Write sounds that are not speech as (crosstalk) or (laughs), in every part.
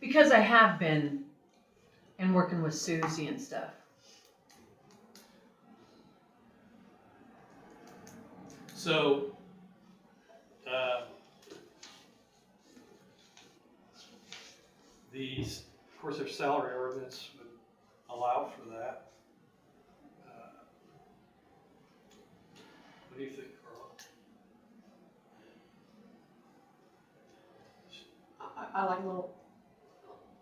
Because I have been and working with Susie and stuff. So, uh, these, of course, their salary ordinance would allow for that. Uh, What do you think, Carla? I, I like a little,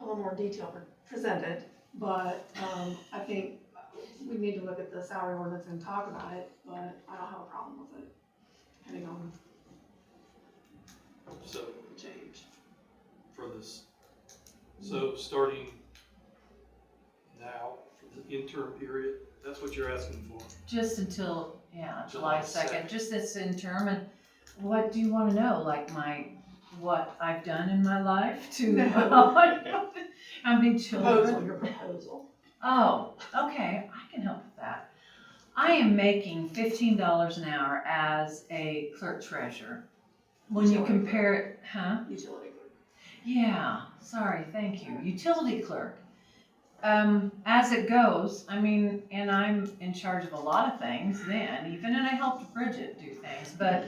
a little more detail pre- presented, but, um, I think we need to look at the salary ordinance and talk about it, but I don't have a problem with it, depending on So, the change. for this, so starting now, for the interim period, that's what you're asking for? Just until, yeah, July July 2nd. second, just this interim and what do you wanna know? Like my, what I've done in my life (laughs) to, No. I mean, children. Proposal, your proposal. Oh, okay, I can help with that. I am making fifteen dollars an hour as a clerk treasurer. When you Utility clerk. compare it, huh? Utility group. Yeah, sorry, thank you. Utility clerk. Um, as it goes, I mean, and I'm in charge of a lot of things then, even, and I helped Bridget do things, but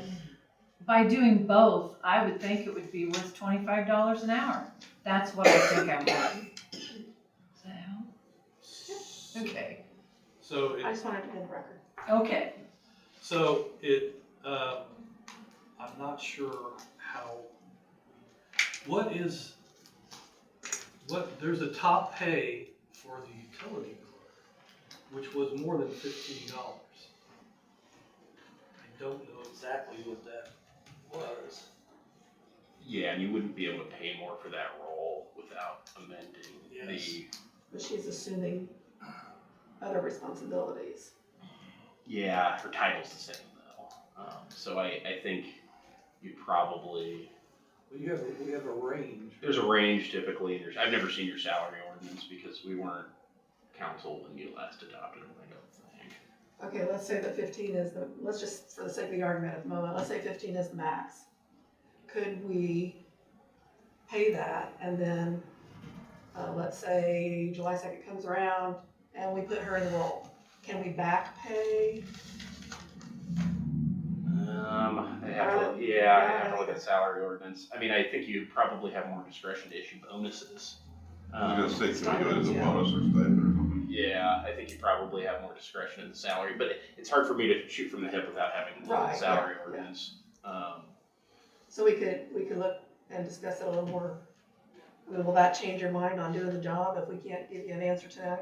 by doing both, I would think it would be worth twenty-five dollars an hour. That's what I think I'm worth. Does that help? Okay. So it I just wanted to get the record. Okay. So it, um, I'm not sure how, what is, what, there's a top pay for the utility clerk, which was more than fifteen dollars. I don't know exactly what that was. Yeah, and you wouldn't be able to pay more for that role without amending the, But she's assuming other responsibilities. yeah, her title's the same though. Um, so I, I think you probably, We have, we have a range. Um, there's a range typically, there's, I've never seen your salary ordinance because we weren't council when you last adopted it, I don't think. Okay, let's say that fifteen is the, let's just, for the sake of the argument at the moment, let's say fifteen is the max. Could we pay that and then, uh, let's say July second comes around and we put her in the role? Can we back pay? Um, I have to, yeah, I have to look at salary ordinance. I mean, I think you probably have more discretion to issue bonuses. I was Um, gonna say, can we do it as a bonus or stipend or something? Yeah, I think you probably have more discretion in the salary, but it- it's hard for me to shoot from the hip without having looked at Right, the salary yeah, yeah. ordinance. Um, So we could, we could look and discuss it a little more. I mean, Will that change your mind on doing the job if we can't give you an answer today?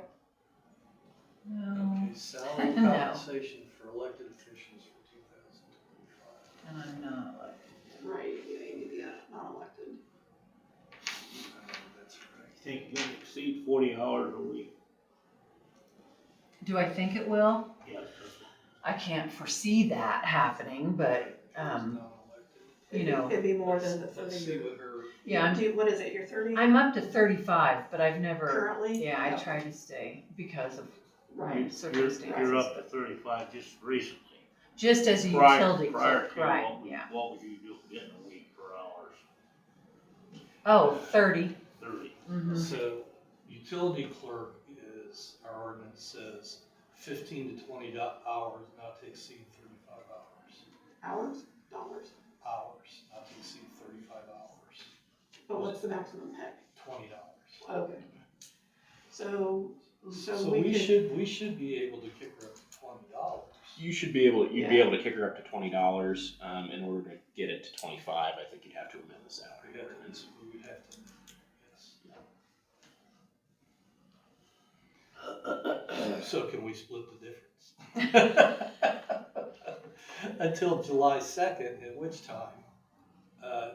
No, (laughs) Okay, salary No. compensation for elected officials for two thousand twenty-five. and I'm not like, Right, you uh, need the non-elected. That's right. I think it don't exceed forty hours a week. do I think it will? Yes. I can't foresee that happening, but, um, Non-elected. you know, It'd be more than the Let's- Let's see thirty. what her, yeah, I'm, Do, what is it, your thirty I'm up to thirty-five, but I've never, currently? yeah, I No. try to stay because of Right. You're, circumstances. you're up to but- thirty-five just recently. Just as a Prior, utility prior clerk, to right, what we, yeah. what were you doing getting a week for hours? Oh, thirty, Thirty. mm-hmm, so utility clerk is, our ordinance says fifteen to twenty do- hours, not to exceed thirty-five hours. Hours, dollars, Hours, not to exceed thirty-five hours, but what's the maximum pay? twenty dollars. Okay. So, so So we we could, should, we should be able to kick her up to twenty dollars. you should be able, you'd be able to kick her up to twenty dollars, um, in order to get it to twenty-five, I think you'd have to amend the We salary have to, ordinance. we would have to, yes. (coughs) So can we split the difference? (laughs) Until July second, at which time, uh,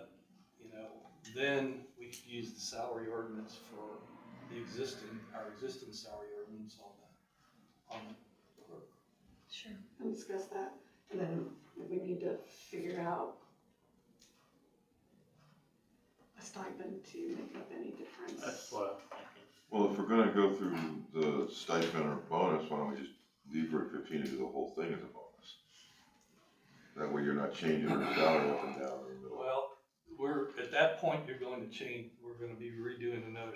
you know, then we could use the salary ordinance for the existing, our existing salary ordinance on the, on the clerk. sure. and discuss that, and then if we need to figure out a stipend to make up any difference. That's what I'm thinking. Well, if we're gonna go through the stipend or bonus, why don't we just leave her at fifteen and do the whole thing as a bonus? That way you're not changing her salary up and down in the middle. Well, we're, at that point, you're going to change, we're gonna be redoing another